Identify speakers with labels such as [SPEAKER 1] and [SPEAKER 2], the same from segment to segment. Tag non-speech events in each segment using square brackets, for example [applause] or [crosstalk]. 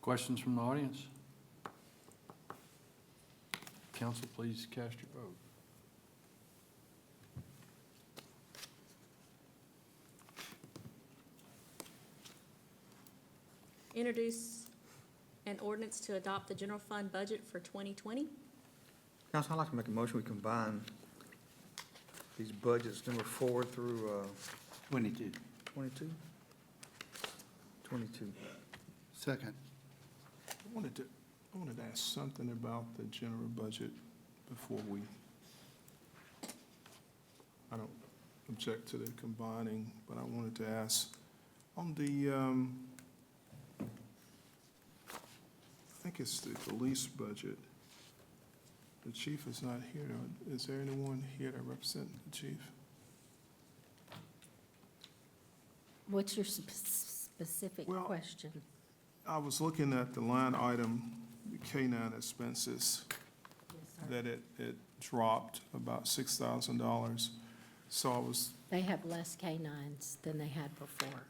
[SPEAKER 1] Questions from the audience? Council, please cast your vote.
[SPEAKER 2] Introduce an ordinance to adopt the general fund budget for 2020.
[SPEAKER 3] Council, I'd like to make a motion, we combine these budgets, number four through uh,
[SPEAKER 1] Twenty-two.
[SPEAKER 3] 22? 22.
[SPEAKER 1] Second.
[SPEAKER 4] I wanted to, I wanted to ask something about the general budget before we, I don't object to the combining, but I wanted to ask, on the, um, I think it's the police budget. The chief is not here. Is there anyone here to represent the chief?
[SPEAKER 5] What's your sp- specific
[SPEAKER 4] Well-
[SPEAKER 5] question?
[SPEAKER 4] I was looking at the line item, the K-9 expenses. that it, it dropped about six thousand dollars. So I was,
[SPEAKER 5] They have less canines than they had before.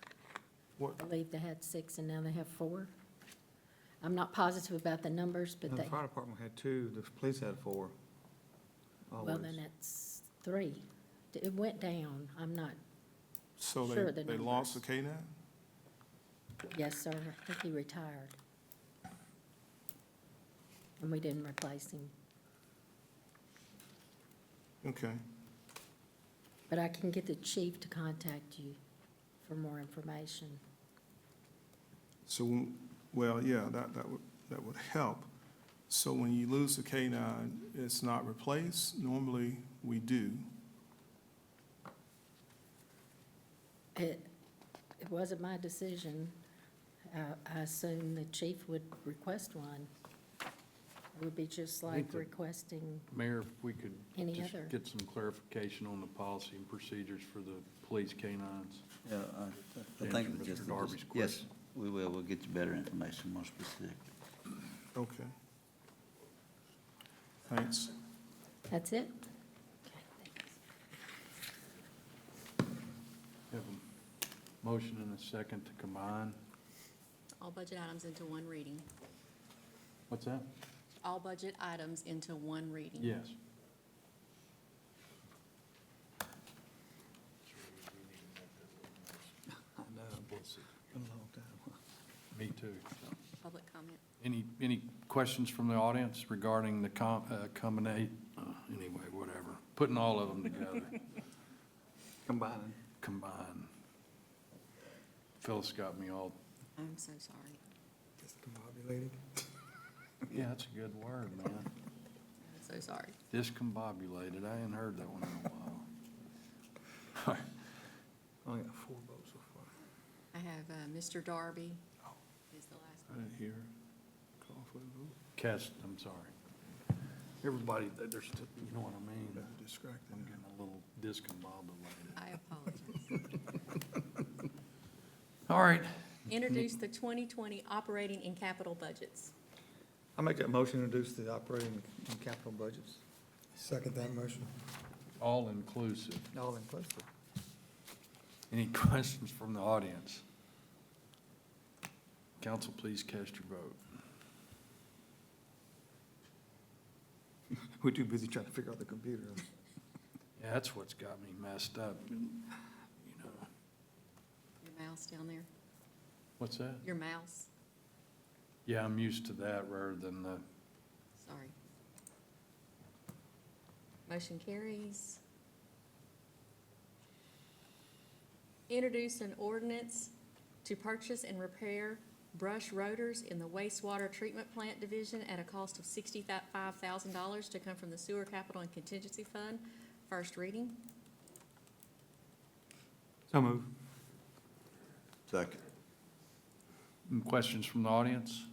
[SPEAKER 4] what,
[SPEAKER 5] I believe they had six and now they have four. I'm not positive about the numbers, but
[SPEAKER 3] The
[SPEAKER 5] they,
[SPEAKER 3] fire department had two, the police had four.
[SPEAKER 5] well,
[SPEAKER 3] Always.
[SPEAKER 5] then it's three. D- It went down. I'm not,
[SPEAKER 4] so
[SPEAKER 5] Sure,
[SPEAKER 4] they,
[SPEAKER 5] the
[SPEAKER 4] they lost the K-9?
[SPEAKER 5] yes, sir, I think he retired. And we didn't replace him.
[SPEAKER 4] Okay,
[SPEAKER 5] But I can get the chief to contact you for more information.
[SPEAKER 4] so, well, yeah, that, that would, that would help. So when you lose the K-9, it's not replaced? Normally, we do.
[SPEAKER 5] It, it wasn't my decision. Uh, I assume the chief would request one. It would be just like
[SPEAKER 1] the-
[SPEAKER 5] requesting,
[SPEAKER 1] Mayor, if we could
[SPEAKER 5] Any
[SPEAKER 1] just
[SPEAKER 5] other?
[SPEAKER 1] get some clarification on the policy and procedures for the police canines.
[SPEAKER 6] Yeah, I- I
[SPEAKER 1] Answer
[SPEAKER 6] think
[SPEAKER 1] Mr.
[SPEAKER 6] just,
[SPEAKER 1] Darby's
[SPEAKER 6] yes,
[SPEAKER 1] question.
[SPEAKER 6] we will, we'll get you better information, more specific.
[SPEAKER 4] Okay. Thanks.
[SPEAKER 5] that's it?
[SPEAKER 1] Have a motion and a second to combine.
[SPEAKER 2] All budget items into one reading.
[SPEAKER 1] What's that?
[SPEAKER 2] All budget items into one reading.
[SPEAKER 1] Yes.
[SPEAKER 6] [laughs] I know, been a long time.
[SPEAKER 1] Me too.
[SPEAKER 2] Public comment.
[SPEAKER 1] Any, any questions from the audience regarding the com, uh, combinate, uh, anyway, whatever, putting all of them [laughs] together,
[SPEAKER 6] Combining.
[SPEAKER 1] combine. Phyllis got me all,
[SPEAKER 2] I'm so sorry.
[SPEAKER 3] Discombobulated.
[SPEAKER 1] yeah, that's a good word, man.
[SPEAKER 2] I'm so sorry.
[SPEAKER 1] Discombobulated, I hadn't heard that one in a while.
[SPEAKER 3] I got four votes so far.
[SPEAKER 2] I have uh, Mr. Darby is the
[SPEAKER 4] I
[SPEAKER 2] last.
[SPEAKER 4] didn't hear. Call for the vote.
[SPEAKER 1] Cast, I'm sorry. Everybody, there's, you know what I mean? I'm
[SPEAKER 4] Distracting.
[SPEAKER 1] getting a little discombobulated.
[SPEAKER 2] I apologize.
[SPEAKER 1] All right,
[SPEAKER 2] Introduce the 2020 operating and capital budgets.
[SPEAKER 3] I make that motion to introduce the operating and capital budgets,
[SPEAKER 7] Second that motion.
[SPEAKER 1] all inclusive.
[SPEAKER 3] all inclusive.
[SPEAKER 1] Any [laughs] questions from the audience? Council, please cast your vote.
[SPEAKER 3] We're too busy trying to figure out the computer.
[SPEAKER 1] Yeah, that's what's got me messed up, you know.
[SPEAKER 2] Your mouse down there,
[SPEAKER 1] What's that?
[SPEAKER 2] your mouse,
[SPEAKER 1] Yeah, I'm used to that rather than the,
[SPEAKER 2] sorry. Motion carries. Introduce an ordinance to purchase and repair brush rotors in the wastewater treatment plant division at a cost of sixty-five thousand dollars to come from the sewer capital and contingency fund. First reading.
[SPEAKER 3] So move.
[SPEAKER 6] Second.
[SPEAKER 1] Any mm, questions from the audience?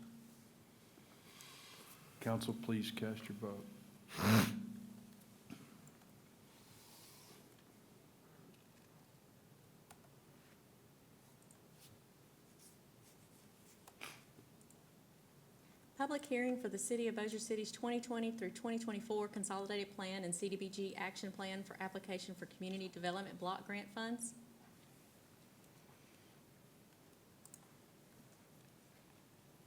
[SPEAKER 1] Council, please cast your vote.
[SPEAKER 2] Public hearing for the City of Bossier City's 2020 through 2024 Consolidated Plan and CDBG Action Plan for application for Community Development Block Grant Funds.